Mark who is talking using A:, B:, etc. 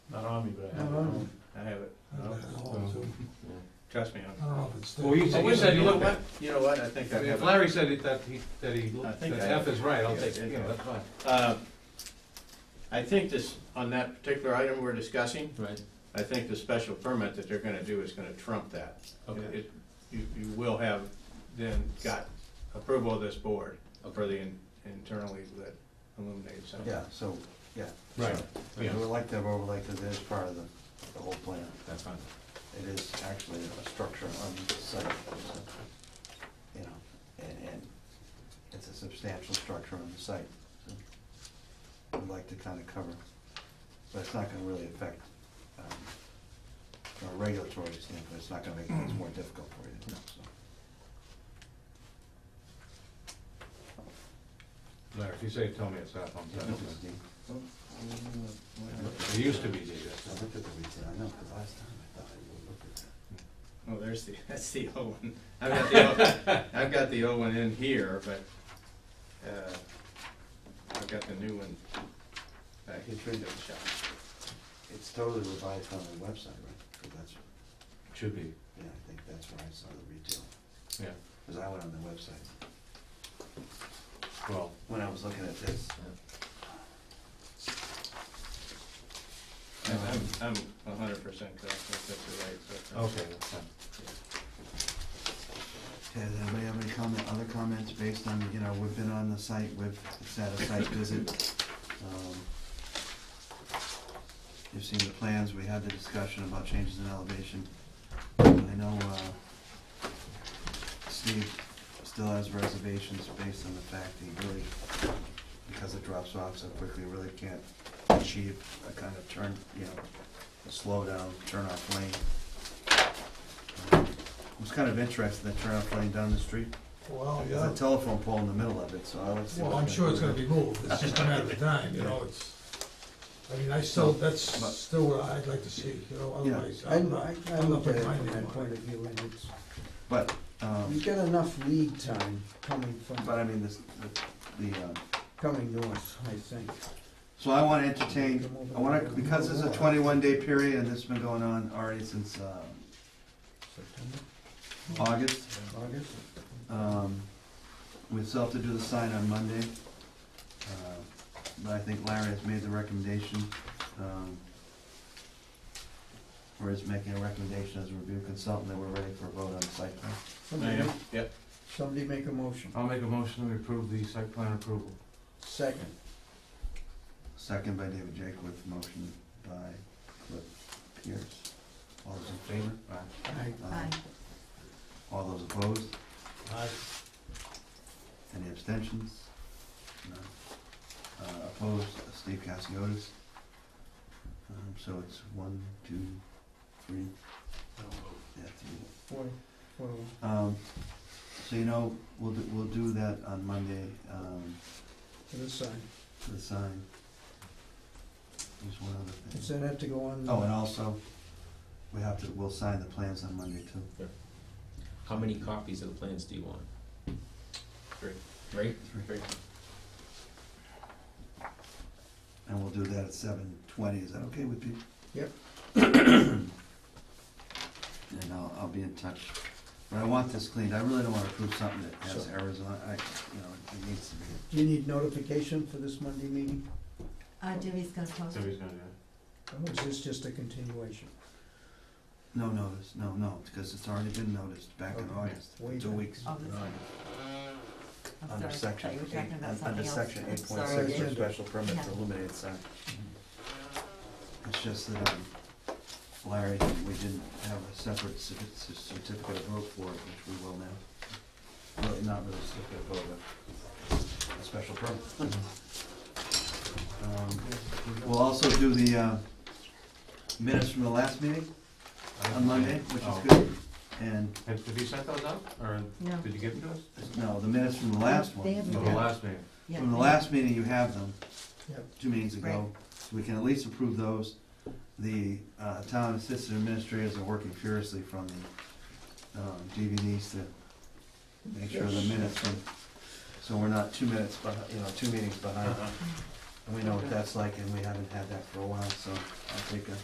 A: Not on me, but I have it.
B: Not on me.
A: I have it.
B: I
A: No?
B: don't know, so-
A: Trust me.
B: I don't know if it's there.
C: Well, you
A: I'm- I
C: said, you
A: wish I,
C: said,
A: you
C: you
A: know
C: looked
A: what,
C: at.
A: you know what, I think I have it.
C: If Larry said it- that he, that he,
A: I
C: that
A: think I
C: F
A: have
C: is right, I'll
A: Yeah,
C: take, it.
A: yeah.
C: you know, that's fine.
A: Uh, I think this, on that particular item we're discussing,
C: Right,
A: I think the special permit that they're gonna do is gonna trump that. It-
C: okay,
A: it- You, you will have then got approval of this board for the in- internally lit illuminated sign.
D: Yeah, so, yeah.
C: Right.
D: So, We would like to have overlay, because it is part of the, the whole plan.
C: that's fine.
D: It is actually a structure on the site, so, you know, and, and it's a substantial structure on the site. so We'd like to kind of cover, but it's not gonna really affect, um, from a regulatory standpoint, it's not gonna make things more difficult for you, so.
C: Larry, if you say, tell me it's not on
D: Yeah,
C: that.
D: no, it's deep.
C: It used to be, uh, D,
D: I
C: that's-
D: looked at the retail, I know, because last time I thought I would look at that.
A: Oh, there's the, that's the old one. I've got the, old- I've got the old one in here, but, uh, I've got the new one back in the shop.
D: It's totally revised on the website, right? 'Cause that's,
C: should be,
D: yeah, I think that's where I saw the retail,
C: yeah,
D: because I went on the website
C: well,
D: when I was looking at this.
A: I'm, I'm I'm a hundred percent correct, if that's right.
C: okay, that's fine.
D: Okay, does anybody have any comment, other comments based on, you know, we've been on the site, we've, it's had a site visit. um, You've seen the plans, we had the discussion about changes in elevation. I know, uh, Steve still has reservations based on the fact that he really, because it drops off so quickly, really can't achieve a kind of turn, you know, a slowdown, turn off lane. Um, I was kind of interested in the turnoff lane down the street.
B: Well,
D: There's
B: Oh, yeah,
D: a telephone pole in the middle of it, so I would see.
B: well,
D: what
B: I'm
D: kind
B: sure
D: of-
B: it's gonna be moved, it's just a matter of time, you know, it's, I mean, I still, that's
D: But-
B: still what I'd like to see, you know,
D: Yeah,
B: otherwise,
E: I, I,
B: I'm not,
E: I
B: I'm not
E: look at
B: putting
E: it
B: my
E: from
B: name
E: that
B: on
E: point
B: it.
E: of view, and it's,
D: But,
E: you
D: um,
E: get enough lead time coming
D: but I
E: from,
D: mean, this, the- the, uh,
E: coming north, I think.
D: so I wanna entertain, I wanna, because it's a twenty-one day period and this has been going on already since, uh,
E: September,
D: August.
E: August?
D: Um, we still have to do the sign on Monday. Uh, But I think Larry has made the recommendation, um, or is making a recommendation as a review consultant that we're ready for a vote on the site plan.
A: I
E: Somebody,
A: am, yep,
E: somebody make a motion.
C: I'll make a motion to approve the site plan approval.
E: Second,
D: Second by David Jakewood, motion by Cliff Pierce. All those in favor? Aye.
E: I,
D: Aye. All those opposed? Any abstentions? None. Uh, opposed, Steve Cassiotis. Um, so it's one, two, three. Yeah, three.
E: four, four,
D: Um, so you know, we'll, do- we'll do that on Monday, um,
E: to the side.
D: for the sign. There's one other thing.
E: Does that have to go on?
D: Oh, and also, we have to, we'll sign the plans on Monday too.
F: How many copies of the plans do you want?
A: Three.
F: Right?
D: And we'll do that at seven twenty, is that okay with you?
E: Yep.
D: And I'll, I'll be in touch, but I want this cleaned, I really don't wanna approve something that has
E: Sure.
D: errors on, it. I, you know, it needs to be.
E: Do you need notification for this Monday meeting?
G: Uh, Debbie's gonna post.
C: So
G: it.
C: he's gonna do it.
E: Or is this just a continuation?
D: No notice, no, no, because it's already been noticed back in
E: Okay.
D: August, for
E: Way
D: two
E: back.
D: weeks.
G: Oh, this- I'm
D: Under
G: sorry, I
D: section
G: thought you were
D: eight,
G: talking about
D: un-
G: something
D: under
G: else.
D: section
G: I'm
D: eight point
G: sorry.
D: six for special permit for
G: Yeah.
D: illuminated sign.
A: Mm-hmm.
D: It's just that, um, Larry, we didn't have a separate cer- cer- certificate of vote for it, which we will now. Well, not really certificate of vote, but a special permit.
C: Mm-hmm.
D: Um, We'll also do the, uh, minutes from the last meeting on Monday, which
C: Oh.
D: is good, and,
C: Have, have you sent those out, or
G: No.
C: did you give them to us?
D: no, the minutes from the last one.
G: They haven't
C: The
G: Yeah.
C: last meeting,
G: Yeah.
D: From the last meeting, you have them,
E: Yep.
D: two meetings ago. So we can at least approve those. The uh, town assistant administrators are working furiously from the um, DVDs to make sure the minutes, from- so we're not two minutes, behi- you know, two meetings behind. And we know what that's like, and we haven't had that for a while, so I'll take a